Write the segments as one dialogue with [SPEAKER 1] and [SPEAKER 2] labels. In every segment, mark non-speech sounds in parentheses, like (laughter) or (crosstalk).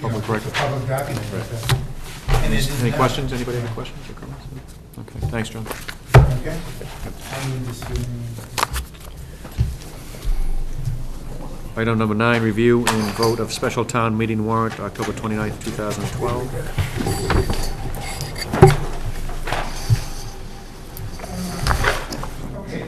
[SPEAKER 1] public record.
[SPEAKER 2] public document.
[SPEAKER 3] And is it
[SPEAKER 1] Any
[SPEAKER 3] now-
[SPEAKER 1] questions? Anybody have any questions or comments? Okay, thanks, John.
[SPEAKER 2] Okay? I need to see.
[SPEAKER 1] Item number nine, review and vote of special town meeting warrant, October 29th, 2012.
[SPEAKER 2] Okay.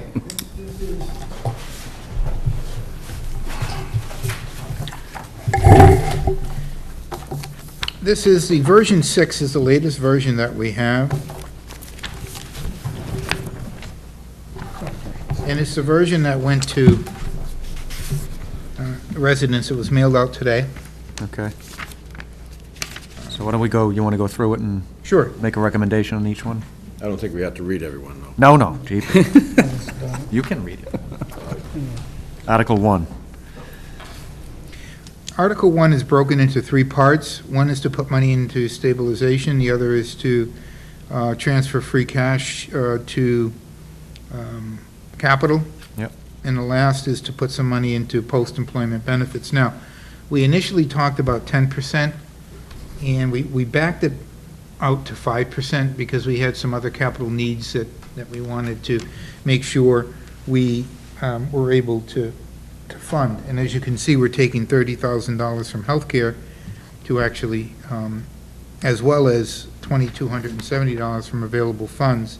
[SPEAKER 2] This is, the version six is the latest version that we have. And it's the version that went to uh, residents, it was mailed out today.
[SPEAKER 1] Okay. So why don't we go, you want to go through it and
[SPEAKER 2] Sure.
[SPEAKER 1] make a recommendation on each one?
[SPEAKER 4] I don't think we have to read everyone, though.
[SPEAKER 1] No, no, (laughs) Jeep. You can read it. Article one.
[SPEAKER 2] Article one is broken into three parts. One is to put money into stabilization, the other is to uh, transfer free cash uh, to um, capital.
[SPEAKER 1] Yep.
[SPEAKER 2] And the last is to put some money into post-employment benefits. Now, we initially talked about ten percent, and we, we backed it out to five percent because we had some other capital needs that, that we wanted to make sure we um, were able to to fund. And as you can see, we're taking thirty thousand dollars from healthcare to actually, um, as well as twenty-two hundred and seventy dollars from available funds,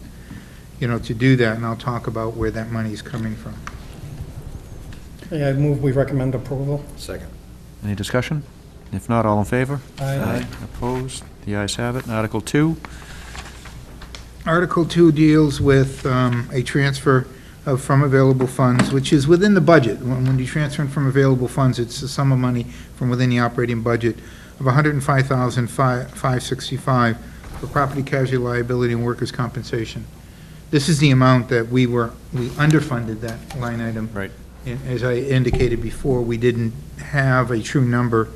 [SPEAKER 2] you know, to do that, and I'll talk about where that money is coming from.
[SPEAKER 5] Yeah, I move we recommend approval.
[SPEAKER 4] Second.
[SPEAKER 1] Any discussion? If not, all in favor?
[SPEAKER 5] Aye.
[SPEAKER 1] Opposed? The ayes have it. Article two.
[SPEAKER 2] Article two deals with um, a transfer of from available funds, which is within the budget. When when you transfer from available funds, it's the sum of money from within the operating budget of $105,565 for property casualty liability and workers' compensation. This is the amount that we were, we underfunded that line item.
[SPEAKER 1] Right.
[SPEAKER 2] And As I indicated before, we didn't have a true number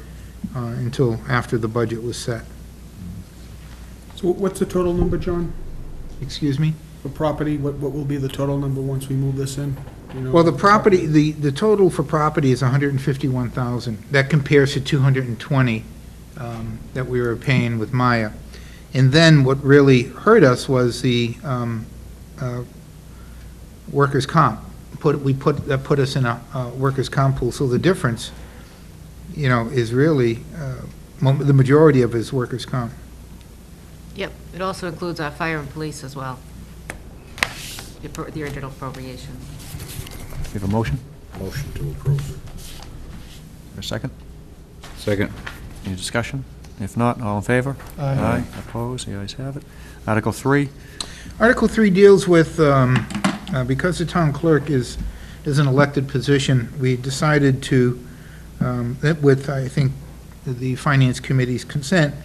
[SPEAKER 2] uh, until after the budget was set.
[SPEAKER 6] So what's the total number, John?
[SPEAKER 2] Excuse me?
[SPEAKER 6] For property, what, what will be the total number once we move this in? You know-
[SPEAKER 2] Well, the property, the, the total for property is 151,000. That compares to 220 um, that we were paying with Maya. And then what really hurt us was the um, uh, workers' comp. Put, we put, that put us in a uh, workers' comp pool, so the difference, you know, is really, uh, mo- the majority of it is workers' comp.
[SPEAKER 7] Yep, it also includes our fire and police as well, the appro- the original appropriation.
[SPEAKER 1] You have a motion?
[SPEAKER 4] Motion to approve.
[SPEAKER 1] Or a second?
[SPEAKER 4] Second.
[SPEAKER 1] Any discussion? If not, all in favor?
[SPEAKER 5] Aye.
[SPEAKER 1] Opposed? The ayes have it. Article three.
[SPEAKER 2] Article 3 deals with, um, uh, because the town clerk is, is an elected position, we decided to, um, that with, I think, the Finance Committee's consent,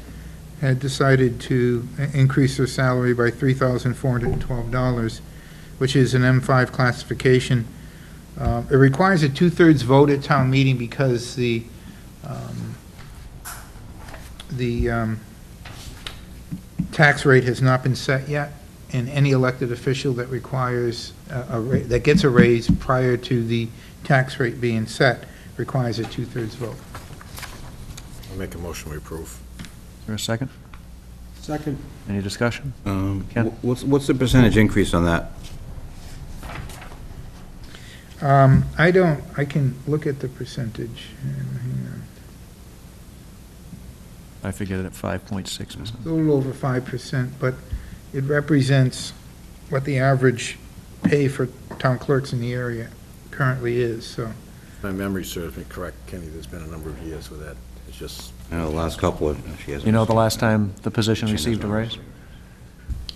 [SPEAKER 2] had decided to i- increase their salary by $3,412, which is an M5 classification. Uh, It requires a two-thirds vote at town meeting because the, um, the um, tax rate has not been set yet and any elected official that requires, a- a ra- that gets a raise prior to the tax rate being set requires a two-thirds vote.
[SPEAKER 4] I'll make a motion we approve.
[SPEAKER 1] Is there a second?
[SPEAKER 6] Second,
[SPEAKER 1] Any discussion?
[SPEAKER 8] Um,
[SPEAKER 1] Ken?
[SPEAKER 8] wh- What's, what's the percentage increase on that?
[SPEAKER 2] Um, I don't, I can look at the percentage. Hang
[SPEAKER 1] I figured it at five point six percent.
[SPEAKER 2] on. A little over 5%, but it represents what the average pay for town clerks in the area currently is, so.
[SPEAKER 4] If My memory serves me correct, Kenny, there's been a number of years with that. It's just,
[SPEAKER 8] You know, Uh, the last couple of, she hasn't.
[SPEAKER 1] You know, the last time the position received a raise?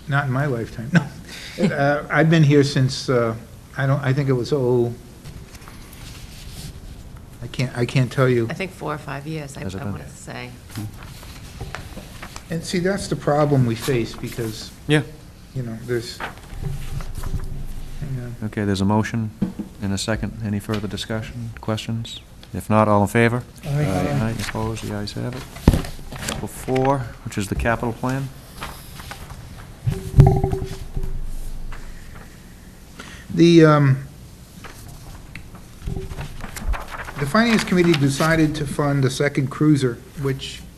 [SPEAKER 2] Not in my lifetime, (laughs) no. Uh, I've been here since, uh, I don't, I think it was, oh, I can't, I can't tell you.
[SPEAKER 7] I think four or five years, I
[SPEAKER 1] Has it been?
[SPEAKER 7] want to say.
[SPEAKER 2] And see, that's the problem we face, because,
[SPEAKER 1] Yeah.
[SPEAKER 2] you know, there's, hang on.
[SPEAKER 1] Okay, there's a motion and a second. Any further discussion, questions? If not, all in favor?
[SPEAKER 2] uh,
[SPEAKER 5] Aye.
[SPEAKER 1] Opposed? The ayes have it. Article four, which is the capital plan.
[SPEAKER 2] The, um, the Finance Committee decided to fund a second cruiser, which